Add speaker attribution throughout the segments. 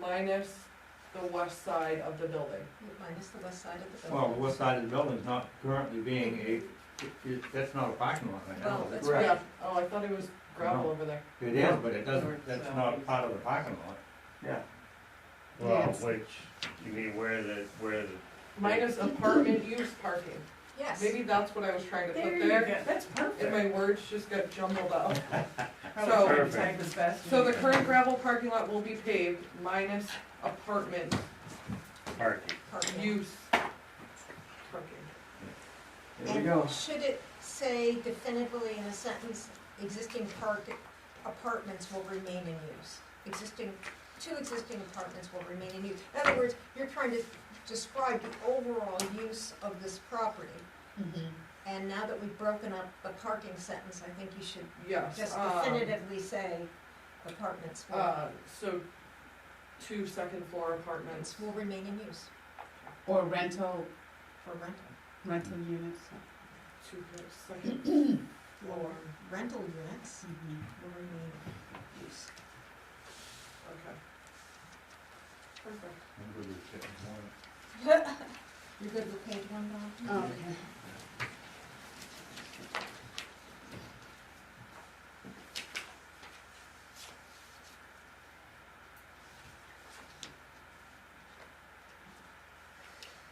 Speaker 1: minus the west side of the building.
Speaker 2: Minus the west side of the
Speaker 3: Well,
Speaker 2: building.
Speaker 3: the west side of the building's not currently being a, it- it- that's not a parking lot right now.
Speaker 2: Well,
Speaker 3: is
Speaker 2: that's
Speaker 3: it?
Speaker 2: right.
Speaker 1: Yeah. Oh, I thought it was gravel
Speaker 3: No.
Speaker 1: over there.
Speaker 3: It is, but it doesn't, that's
Speaker 2: uh,
Speaker 3: not part of the parking lot.
Speaker 4: Well,
Speaker 2: Yes.
Speaker 4: which, you mean where the, where the,
Speaker 1: Minus apartment use parking.
Speaker 2: Yes.
Speaker 1: Maybe that's what I was trying to
Speaker 5: There
Speaker 1: put
Speaker 5: you go,
Speaker 1: there,
Speaker 5: that's
Speaker 1: and
Speaker 5: perfect.
Speaker 1: my words just got jumbled up.
Speaker 5: Probably trying to
Speaker 4: Perfect.
Speaker 5: type as fast as
Speaker 1: So the
Speaker 5: you
Speaker 1: current gravel parking lot will be paved minus apartment
Speaker 4: parking?
Speaker 2: Apartment.
Speaker 1: use parking.
Speaker 3: There you go.
Speaker 2: And should it say definitively in a sentence, existing park, apartments will remain in use? Existing, two existing apartments will remain in use. In other words, you're trying to describe the overall use of this property.
Speaker 1: Mm-hmm.
Speaker 2: And now that we've broken up the parking sentence, I think you should
Speaker 1: Yes,
Speaker 2: just
Speaker 1: um,
Speaker 2: definitively say apartments will,
Speaker 1: uh, so two second floor apartments.
Speaker 2: will remain in use
Speaker 6: Or rental,
Speaker 2: for rental,
Speaker 6: rental units.
Speaker 1: Two second floor,
Speaker 2: or rental units will remain in use.
Speaker 1: okay. Perfect.
Speaker 2: You're good with page one, Bob?
Speaker 6: Okay.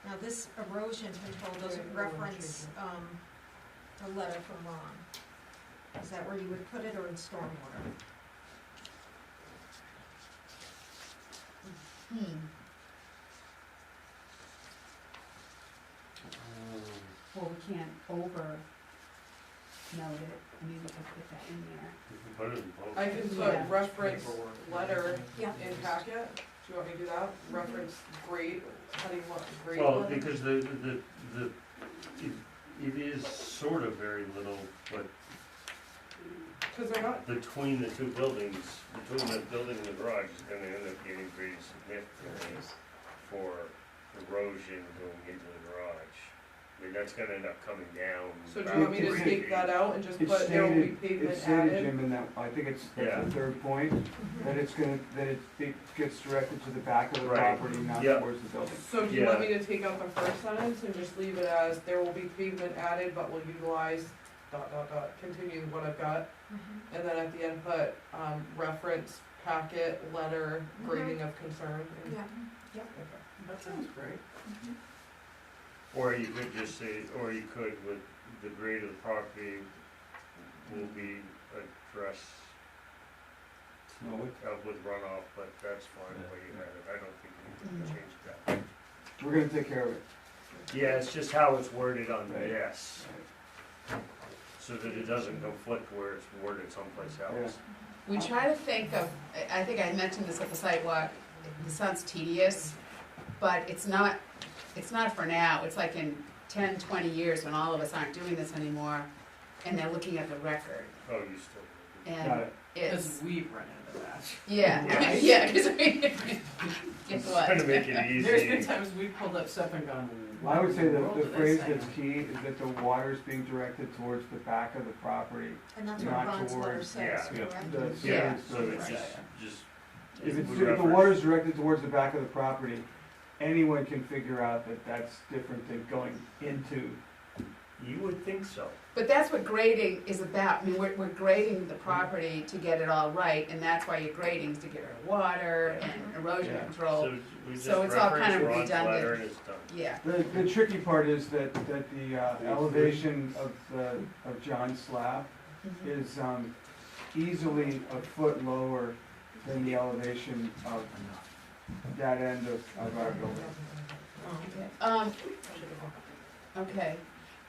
Speaker 2: Now, this erosion control doesn't reference, um, the letter from Ron. Is that where you would put it or in stormwater?
Speaker 6: Hmm.
Speaker 4: Um,
Speaker 6: Well, we can't over note it, I mean, we can put that in there.
Speaker 4: You can put it in both.
Speaker 1: I can put
Speaker 6: Yeah.
Speaker 1: reference letter
Speaker 2: Yeah.
Speaker 1: in packet, do you want me to do that? Reference grade, how do you want grade?
Speaker 4: Well,
Speaker 1: letter?
Speaker 4: because the, the, the, it- it is sort of very little, but
Speaker 1: Cause they're not,
Speaker 4: between the two buildings, between the building and the garage is gonna end up getting pretty significant for erosion going into the garage. I mean, that's gonna end up coming down.
Speaker 1: so do you want me to
Speaker 4: about
Speaker 1: take that out and just put, there will be pavement added?
Speaker 7: Jim, in that, I think it's,
Speaker 4: Yeah.
Speaker 7: that's the third point,
Speaker 2: Mm-hmm.
Speaker 7: that it's gonna, that it, it gets directed to the back of the
Speaker 4: Right.
Speaker 7: property, not
Speaker 4: Yeah.
Speaker 7: towards the building.
Speaker 1: So do you want me
Speaker 4: Yeah.
Speaker 1: to take out the first sentence and just leave it as, there will be pavement added, but will utilize dot, dot, dot, continue what I've got?
Speaker 2: Mhm.
Speaker 1: And then at the end put, um, reference packet, letter, grading of concern? and-
Speaker 2: Mm-hmm. Yeah,
Speaker 1: Okay.
Speaker 5: That sounds great.
Speaker 2: Mm-hmm.
Speaker 4: Or you could just say, or you could with the grade of the property will be addressed
Speaker 3: No, we-
Speaker 4: uh, with runoff, but that's fine, the way you have it, I don't think you
Speaker 6: Mm.
Speaker 4: need to change that.
Speaker 7: We're gonna take care of it.
Speaker 4: Yeah, it's just how it's worded on the
Speaker 7: Right.
Speaker 4: yes, so that it doesn't conflict where it's worded someplace else.
Speaker 6: We try to think of, I- I think I mentioned this at the sidewalk, this sounds tedious, but it's not, it's not for now, it's like in ten, twenty years when all of us aren't doing this anymore, and they're looking at the record,
Speaker 4: Oh, you still.
Speaker 7: Got
Speaker 6: and
Speaker 7: it.
Speaker 6: it's,
Speaker 5: we've run into that.
Speaker 6: yeah,
Speaker 4: Yes.
Speaker 6: yeah, because we, guess
Speaker 4: It's Trying to
Speaker 6: what?
Speaker 4: make it
Speaker 5: There's been
Speaker 4: easy.
Speaker 5: times we've pulled up stuff and gone.
Speaker 7: I would say
Speaker 5: "What in
Speaker 7: that the
Speaker 5: world did I
Speaker 7: phrase
Speaker 5: sign
Speaker 7: that's
Speaker 5: up?"
Speaker 7: key is that the water is being directed towards the back of the property,
Speaker 2: and that's what
Speaker 7: Not
Speaker 2: Ron's letter
Speaker 7: towards-
Speaker 2: says,
Speaker 3: yeah.
Speaker 2: correct?
Speaker 7: the
Speaker 6: Yeah.
Speaker 7: service
Speaker 4: So it's
Speaker 5: Right.
Speaker 4: just, just.
Speaker 7: If
Speaker 4: it
Speaker 7: it's,
Speaker 4: would
Speaker 7: if the
Speaker 4: reference-
Speaker 7: water's directed towards the back of the property, anyone can figure out that that's different than going into.
Speaker 4: You would think so.
Speaker 6: But that's what grading is about, I mean, we're, we're grading the property to get it all right, and that's why you're grading, is to get rid of water and erosion
Speaker 7: Yeah.
Speaker 6: control,
Speaker 4: So we just
Speaker 6: So it's all kind
Speaker 4: reference
Speaker 6: of
Speaker 4: Ron's letter
Speaker 6: redundant.
Speaker 4: and it's done.
Speaker 6: yeah.
Speaker 7: The, the tricky part is that, that the uh, elevation of the, of John's slab
Speaker 6: Mhm.
Speaker 7: is um, easily a foot lower than the elevation of that end of, of our building.
Speaker 6: Um, okay.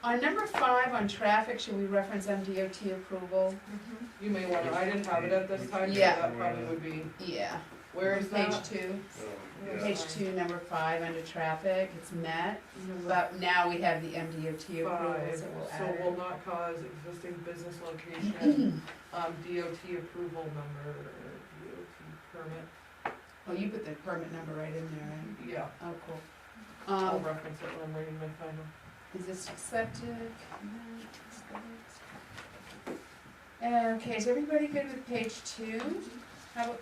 Speaker 6: On number five, on traffic, should we reference MDOT approval?
Speaker 2: Mhm.
Speaker 1: You may want to, I didn't have it at this time, so
Speaker 6: Yeah.
Speaker 1: that probably would be,
Speaker 6: Yeah.
Speaker 1: where is
Speaker 6: Page
Speaker 1: that?
Speaker 6: two,
Speaker 4: So,
Speaker 1: Yeah.
Speaker 6: page two, number five, under traffic, it's met, but now we have the MDOT approval,
Speaker 1: Five,
Speaker 6: so we'll
Speaker 1: so
Speaker 6: add
Speaker 1: will
Speaker 6: it.
Speaker 1: not cause existing business location, um, DOT approval number, DOT permit,
Speaker 6: Oh, you put the permit number right in there, right?
Speaker 1: yeah,
Speaker 6: Oh, cool.
Speaker 1: I'll
Speaker 6: Um,
Speaker 1: reference it when I'm reading my final.
Speaker 6: is this septic? No, it's Uh, this. Okay, is everybody good with page two? How about